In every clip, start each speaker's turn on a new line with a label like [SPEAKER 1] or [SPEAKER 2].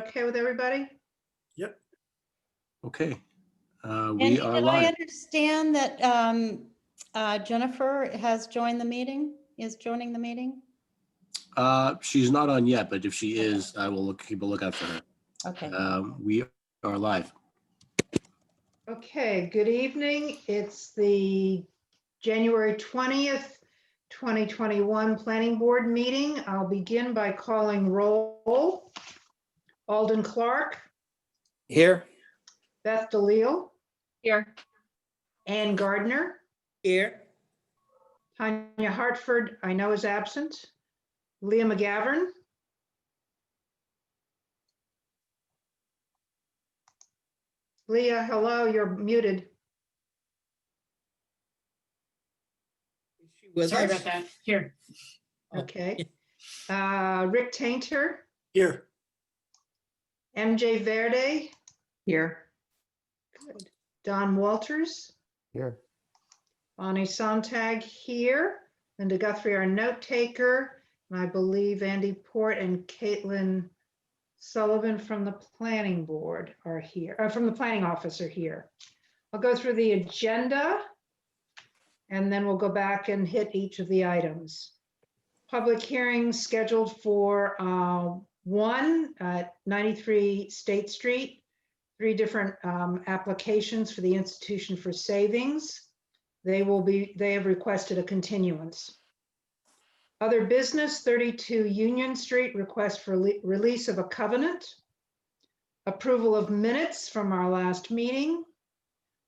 [SPEAKER 1] Okay with everybody?
[SPEAKER 2] Okay, uh,
[SPEAKER 3] And
[SPEAKER 2] we are
[SPEAKER 3] did I
[SPEAKER 2] live.
[SPEAKER 3] understand that um, uh, Jennifer has joined the meeting, is joining the meeting?
[SPEAKER 2] Uh, She's not on yet, but if she is, I will look, keep a lookout for her.
[SPEAKER 3] Okay,
[SPEAKER 2] Um, We are live.
[SPEAKER 1] Okay, good evening. It's the January 20th, 2021 Planning Board meeting. I'll begin by calling roll. Alden Clark,
[SPEAKER 4] Here.
[SPEAKER 1] Beth DeLeo,
[SPEAKER 5] Here.
[SPEAKER 1] Ann Gardner,
[SPEAKER 4] Here.
[SPEAKER 1] Tanya Hartford, I know is absent, Leah McGovern. Leah, hello, you're muted.
[SPEAKER 5] Sorry about that. Here.
[SPEAKER 1] Okay. Uh, Rick Tainter,
[SPEAKER 4] Here.
[SPEAKER 1] MJ Verde,
[SPEAKER 5] Here.
[SPEAKER 1] Don Walters,
[SPEAKER 4] Here.
[SPEAKER 1] Bonnie Sontag here, Linda Guthrie, our note taker, and I believe Andy Port and Caitlin Sullivan from the planning board are here, uh, from the planning office are here. I'll go through the agenda and then we'll go back and hit each of the items. Public hearing scheduled for uh, one at 93 State Street three different um, applications for the Institution for Savings. They will be, they have requested a continuance. Other business, 32 Union Street, request for le- release of a covenant. Approval of minutes from our last meeting.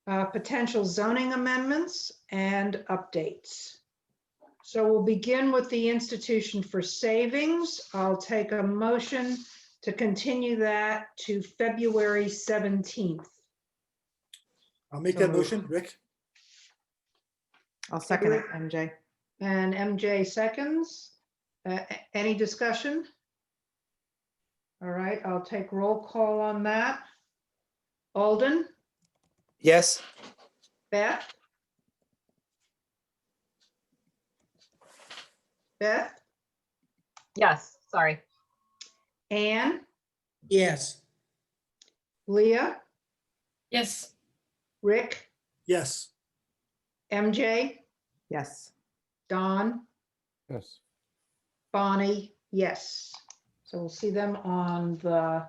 [SPEAKER 1] uh, Potential zoning amendments and updates. So we'll begin with the Institution for Savings. I'll take a motion to continue that to February 17th.
[SPEAKER 4] I'll make
[SPEAKER 6] So
[SPEAKER 4] that
[SPEAKER 6] moved.
[SPEAKER 4] motion, Rick.
[SPEAKER 6] I'll second it,
[SPEAKER 1] Agree.
[SPEAKER 6] MJ.
[SPEAKER 1] And MJ seconds. Uh, a- Any discussion? All right, I'll take roll call on that. Alden,
[SPEAKER 4] Yes.
[SPEAKER 1] Beth? Beth,
[SPEAKER 5] Yes, sorry.
[SPEAKER 1] Anne,
[SPEAKER 4] Yes.
[SPEAKER 1] Leah,
[SPEAKER 5] Yes.
[SPEAKER 1] Rick,
[SPEAKER 4] Yes.
[SPEAKER 1] MJ,
[SPEAKER 6] Yes.
[SPEAKER 1] Don?
[SPEAKER 4] Yes.
[SPEAKER 1] Bonnie, yes. So we'll see them on the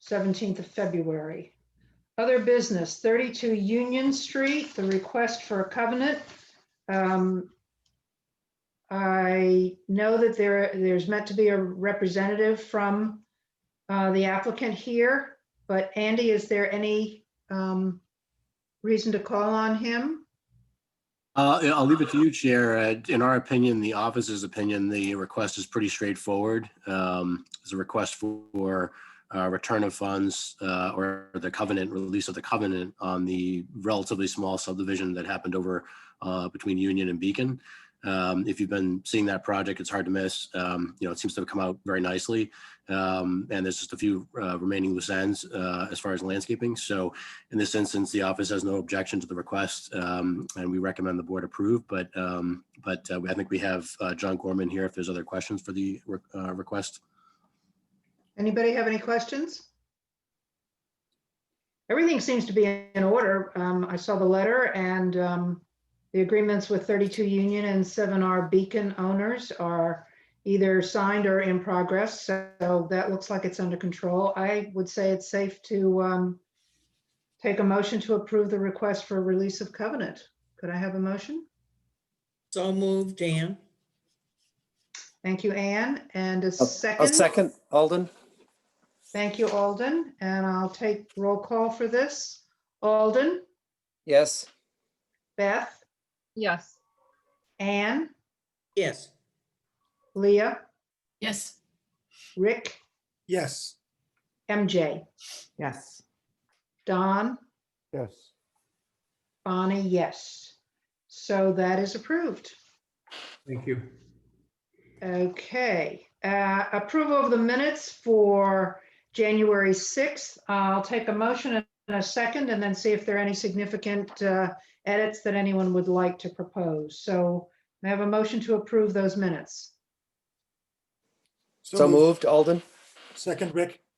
[SPEAKER 1] 17th of February. Other business, 32 Union Street, the request for a covenant. Um, I know that there, there's meant to be a representative from uh, the applicant here, but Andy, is there any um, reason to call on him?
[SPEAKER 2] Uh, yeah, I'll leave it to you, Chair. Uh, In our opinion, the office's opinion, the request is pretty straightforward. Um, It's a request for uh, return of funds uh, or the covenant, release of the covenant on the relatively small subdivision that happened over uh, between Union and Beacon. Um, If you've been seeing that project, it's hard to miss. Um, You know, it seems to have come out very nicely. Um, And there's just a few uh, remaining loose ends uh, as far as landscaping. So in this instance, the office has no objection to the request, um, and we recommend the board approve, but, um, but uh, I think we have uh, John Gorman here if there's other questions for the re- uh, request.
[SPEAKER 1] Anybody have any questions? Everything seems to be in order. Um, I saw the letter and, um, the agreements with 32 Union and 7R Beacon owners are either signed or in progress. So that looks like it's under control. I would say it's safe to, um, take a motion to approve the request for release of covenant. Could I have a motion?
[SPEAKER 7] So moved, Dan.
[SPEAKER 1] Thank you, Anne, and a
[SPEAKER 4] I'll-
[SPEAKER 1] second.
[SPEAKER 4] I'll second, Alden.
[SPEAKER 1] Thank you, Alden, and I'll take roll call for this. Alden,
[SPEAKER 4] Yes.
[SPEAKER 1] Beth,
[SPEAKER 5] Yes.
[SPEAKER 1] Anne,
[SPEAKER 7] Yes,
[SPEAKER 1] Leah,
[SPEAKER 5] Yes.
[SPEAKER 1] Rick,
[SPEAKER 4] Yes.
[SPEAKER 1] MJ,
[SPEAKER 6] Yes.
[SPEAKER 1] Don,
[SPEAKER 4] Yes.
[SPEAKER 1] Bonnie, yes. So that is approved.
[SPEAKER 4] Thank you.
[SPEAKER 1] Okay, uh, approval of the minutes for January 6th. I'll take a motion and a second and then see if there are any significant uh, edits that anyone would like to propose. So may I have a motion to approve those minutes.
[SPEAKER 4] So moved, Alden. Second, Rick.